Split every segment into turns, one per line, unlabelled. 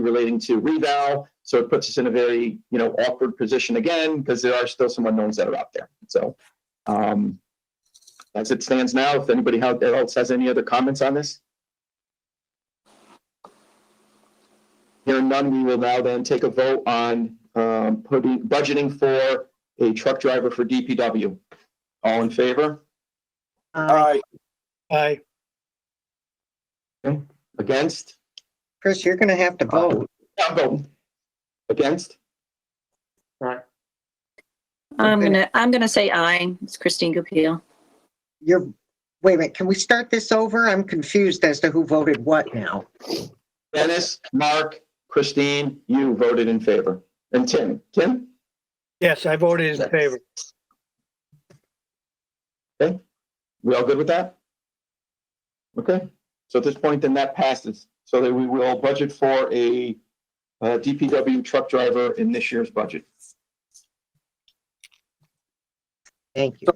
relating to reval. So it puts us in a very, you know, awkward position again, because there are still some unknowns that are out there. So um, as it stands now, if anybody out there else has any other comments on this? Hearing none, we will now then take a vote on um, putting, budgeting for a truck driver for DPW. All in favor?
Aye. Aye.
Against?
Chris, you're gonna have to vote.
I'm voting. Against?
I'm
Okay.
gonna, I'm gonna say aye. It's Christine Goupil.
You're, wait a minute, can we start this over? I'm confused as to who voted what now.
Dennis, Mark, Christine, you voted in favor. And Tim, Tim?
Yes, I voted in favor.
We all good with that? Okay, so at this point, then that passes. So that we will budget for a uh, DPW truck driver in this year's budget.
Thank you.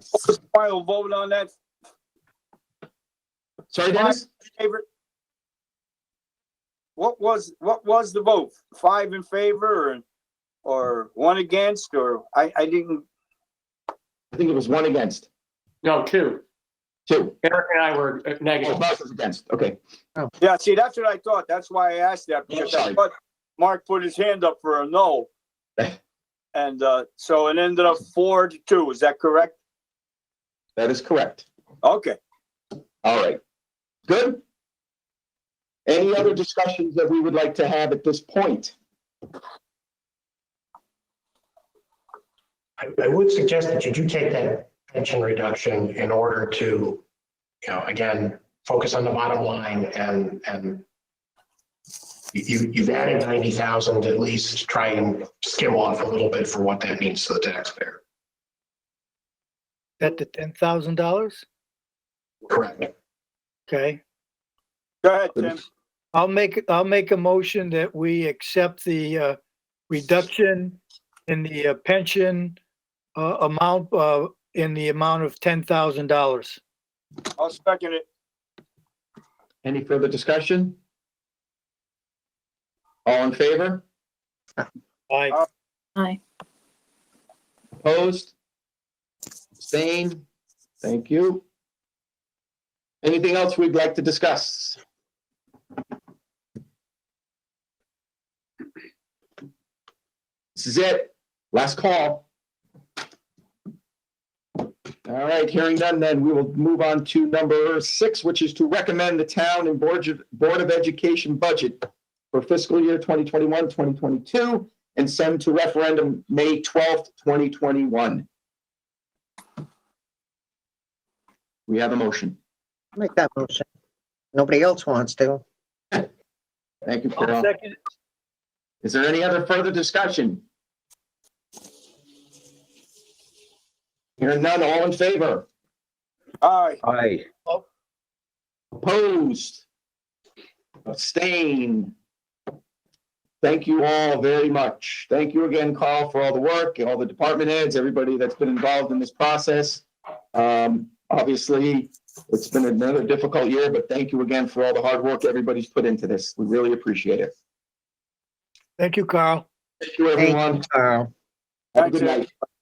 Final vote on that
Sorry, Dennis?
favor? What was, what was the vote? Five in favor or, or one against, or I, I didn't,
I think it was one against,
No, two.
two.
Eric and I were uh,
Oh,
negative.
Mark was against, okay.
yeah, see, that's what I thought. That's why I asked that.
Yeah,
because
sorry.
I thought Mark put his hand up for a no. And, uh, so it ended up four to two. Is that correct?
That is correct.
Okay.
All right. Good? Any other discussions that we would like to have at this point?
I, I would suggest that you do take that pension reduction in order to, you know, again, focus on the bottom line and, and you, you've added ninety thousand, at least try and skim off a little bit for what that means to the taxpayer.
At the ten thousand dollars?
Correct.
Okay.
Go ahead, Tim.
I'll make, I'll make a motion that we accept the uh, reduction in the uh, pension uh, amount, uh, in the amount of ten thousand dollars.
I'll second it.
Any further discussion? All in favor?
Aye.
Aye.
Opposed? Abstained? Thank you. Anything else we'd like to discuss? This is it. Last call. All right, hearing none, then we will move on to number six, which is to recommend the town and Board of, Board of Education budget for fiscal year 2021, 2022 and send to referendum May twelfth, twenty twenty-one. We have a motion.
Make that motion. Nobody else wants to.
Thank you,
I'll
Carol.
second,
Is there any other further discussion? Hearing none, all in favor?
All right.
Aye.
Opposed? Abstain? Thank you all very much. Thank you again, Carl, for all the work, all the department heads, everybody that's been involved in this process. Um, obviously, it's been another difficult year, but thank you again for all the hard work everybody's put into this. We really appreciate it.
thank you, Carl.
Thank you,
Thank
everyone.
you, Carl.
Have a good
Thanks,
night.